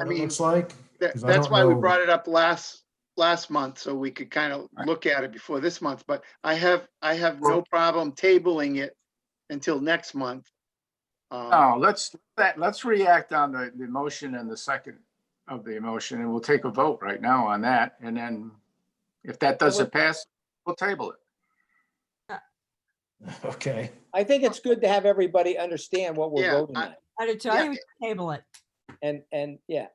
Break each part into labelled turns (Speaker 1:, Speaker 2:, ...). Speaker 1: I
Speaker 2: what it
Speaker 1: mean,
Speaker 2: looks like?
Speaker 1: That,
Speaker 2: 'Cause I
Speaker 1: that's
Speaker 2: don't
Speaker 1: why we
Speaker 2: know-
Speaker 1: brought it up last, last month, so we could kind of look at it before this month, but I have, I have no problem tabling it until next month. Um,
Speaker 2: Oh,
Speaker 3: No, let's, that, let's react on the, the motion and the second of the motion, and we'll take a vote right now on that, and then if that doesn't pass, we'll table it.
Speaker 2: Okay,
Speaker 4: I think it's good to have everybody understand what we're
Speaker 1: Yeah,
Speaker 4: voting
Speaker 1: I-
Speaker 4: on.
Speaker 5: I'd
Speaker 1: Yeah.
Speaker 5: tell you, table it.
Speaker 4: And, and, yeah,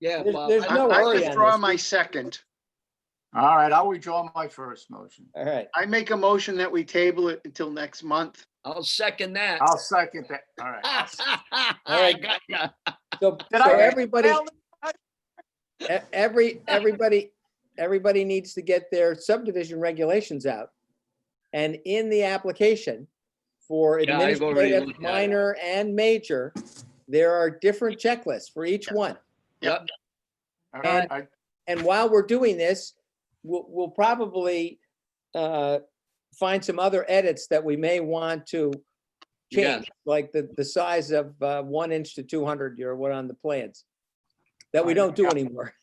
Speaker 6: Yeah,
Speaker 4: There's-
Speaker 6: Bob.
Speaker 4: there's
Speaker 6: I-
Speaker 1: I
Speaker 4: no
Speaker 1: I
Speaker 4: worry on
Speaker 1: withdraw
Speaker 4: this.
Speaker 1: my second.
Speaker 3: All right, I'll withdraw my first motion.
Speaker 4: all right.
Speaker 1: I make a motion that we table it until next month.
Speaker 6: I'll second that.
Speaker 3: I'll second that, all
Speaker 6: Ah.
Speaker 3: right.
Speaker 4: right.
Speaker 6: Got ya.
Speaker 4: So,
Speaker 3: Did
Speaker 4: so
Speaker 3: I-
Speaker 4: everybody, e- every, everybody, everybody needs to get their subdivision regulations out. And in the application for
Speaker 6: Yeah, I've already
Speaker 4: administrative,
Speaker 6: looked at it.
Speaker 4: minor and major, there are different checklists for each one.
Speaker 3: All right, I-
Speaker 4: And while we're doing this, we'll, we'll probably uh, find some other edits that we may want to
Speaker 6: Yeah.
Speaker 4: change, like the, the size of uh, one inch to 200, or what on the plans, that we don't do anymore.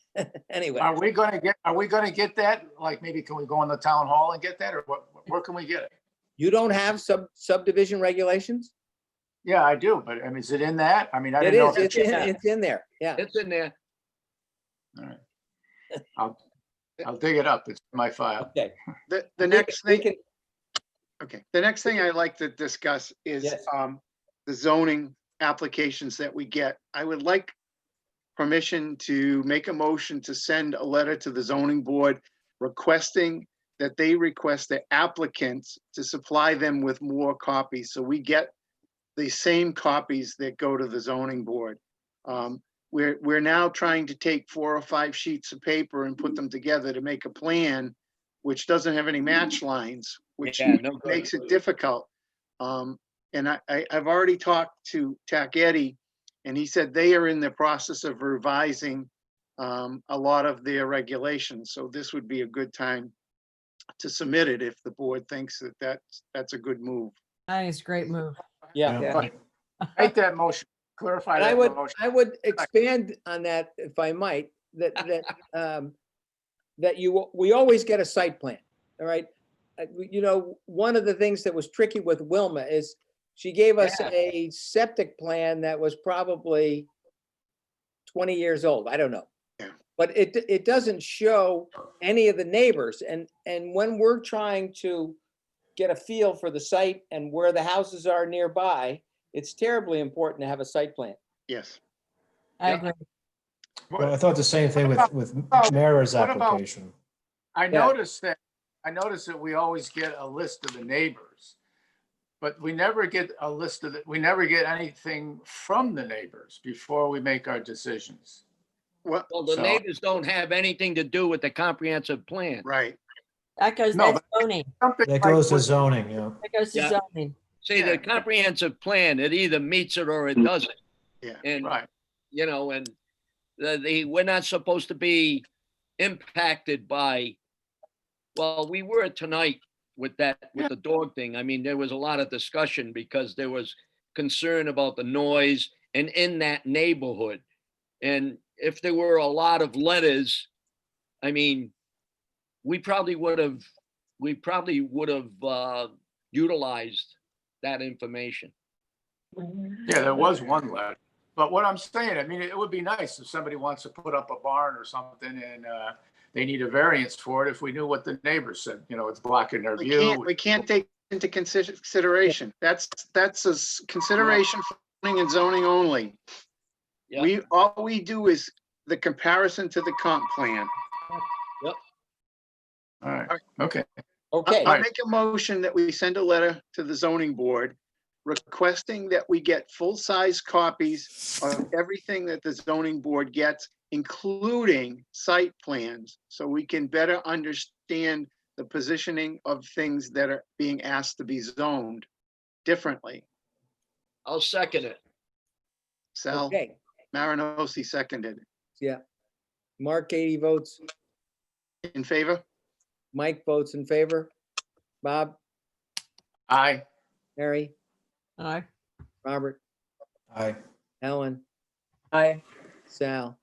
Speaker 4: Anyway,
Speaker 3: Are we gonna get, are we gonna get that? Like, maybe can we go in the town hall and get that, or what, where can we get it?
Speaker 4: you don't have sub subdivision regulations?
Speaker 3: Yeah, I do, but I mean, is it in that? I mean, I
Speaker 4: It
Speaker 3: didn't know.
Speaker 4: is,
Speaker 3: if
Speaker 4: it's
Speaker 3: it's in
Speaker 4: in,
Speaker 3: that.
Speaker 4: it's in there, yeah.
Speaker 6: It's in there.
Speaker 3: I'll dig it up, it's in my file.
Speaker 4: Okay.
Speaker 1: The, the
Speaker 4: We-
Speaker 1: next
Speaker 4: we
Speaker 1: thing,
Speaker 4: can-
Speaker 1: okay, the next thing I'd like to discuss is,
Speaker 4: Yes.
Speaker 1: um, the zoning applications that we get. I would like permission to make a motion to send a letter to the zoning board requesting that they request the applicants to supply them with more copies, so we get the same copies that go to the zoning board. Um, we're, we're now trying to take four or five sheets of paper and put them together to make a plan, which doesn't have any match lines, which
Speaker 6: Yeah, no good.
Speaker 1: makes it difficult. Um, and I, I, I've already talked to Tac Eddie, and he said they are in the process of revising um, a lot of their regulations, so this would be a good time to submit it if the board thinks that that's, that's a good move.
Speaker 5: I think it's a great move.
Speaker 4: Yeah.
Speaker 2: Yeah.
Speaker 3: But Make that motion, clarify
Speaker 4: And I
Speaker 3: that
Speaker 4: would,
Speaker 3: motion.
Speaker 4: I would expand on that if I might, that, that, um, that you, we always get a site plan, all right? Uh, we- You know, one of the things that was tricky with Wilma is she gave us a septic plan that was probably twenty years old, I don't know.
Speaker 1: Yeah.
Speaker 4: But it, it doesn't show any of the neighbors, and, and when we're trying to get a feel for the site and where the houses are nearby, it's terribly important to have a site plan.
Speaker 1: Yes.
Speaker 5: I
Speaker 6: Yeah.
Speaker 5: agree.
Speaker 2: well, I thought the same thing with, with
Speaker 3: about-
Speaker 2: Mara's
Speaker 3: what about-
Speaker 2: application.
Speaker 3: I
Speaker 4: Yeah.
Speaker 3: noticed that, I noticed that we always get a list of the neighbors. But we never get a list of, the we never get anything from the neighbors before we make our decisions.
Speaker 1: Well,
Speaker 6: Well, the
Speaker 3: So-
Speaker 6: neighbors don't have anything to do with the comprehensive plan.
Speaker 1: right.
Speaker 5: That goes,
Speaker 3: No,
Speaker 5: that's zoning.
Speaker 3: Something
Speaker 2: That
Speaker 3: like
Speaker 2: goes to
Speaker 3: what-
Speaker 2: zoning, yeah.
Speaker 5: That goes to
Speaker 6: Yeah.
Speaker 5: zoning.
Speaker 6: See,
Speaker 3: Yeah. Mm.
Speaker 6: the comprehensive plan, it either meets it or it doesn't.
Speaker 1: Yeah.
Speaker 6: And,
Speaker 3: Right,
Speaker 6: you know, and the, the, we're not supposed to be impacted by, well, we were tonight with that, with the dog thing. I mean, there was a lot of discussion because there was concern about the noise and in that neighborhood. And if there were a lot of letters, I mean, we probably would have, we probably would have, uh, utilized that information.
Speaker 3: yeah, there was one letter. But what I'm saying, I mean, it would be nice if somebody wants to put up a barn or something and, uh, they need a variance for it, if we knew what the neighbors said, you know, it's blocking their
Speaker 1: We can't,
Speaker 3: view.
Speaker 1: we can't take into consider- consideration. That's, that's a s- consideration for zoning and zoning only.
Speaker 6: Yeah.
Speaker 1: We, all we do is the comparison to the comp plan.
Speaker 3: All right, okay,
Speaker 4: Okay,
Speaker 1: I- I'll
Speaker 3: Right.
Speaker 1: make a motion that we send a letter to the zoning board requesting that we get full-size copies of everything that the zoning board gets, including site plans, so we can better understand the positioning of things that are being asked to be zoned differently.
Speaker 6: I'll second it.
Speaker 1: Sal
Speaker 4: okay.
Speaker 1: Marinosi seconded.
Speaker 4: Mark Katie votes,
Speaker 1: In favor?
Speaker 4: Mike votes in favor. Bob,
Speaker 3: aye,
Speaker 4: Mary,
Speaker 5: Aye.
Speaker 4: Robert,
Speaker 2: Aye.
Speaker 4: Helen,
Speaker 5: Aye.
Speaker 4: Sal.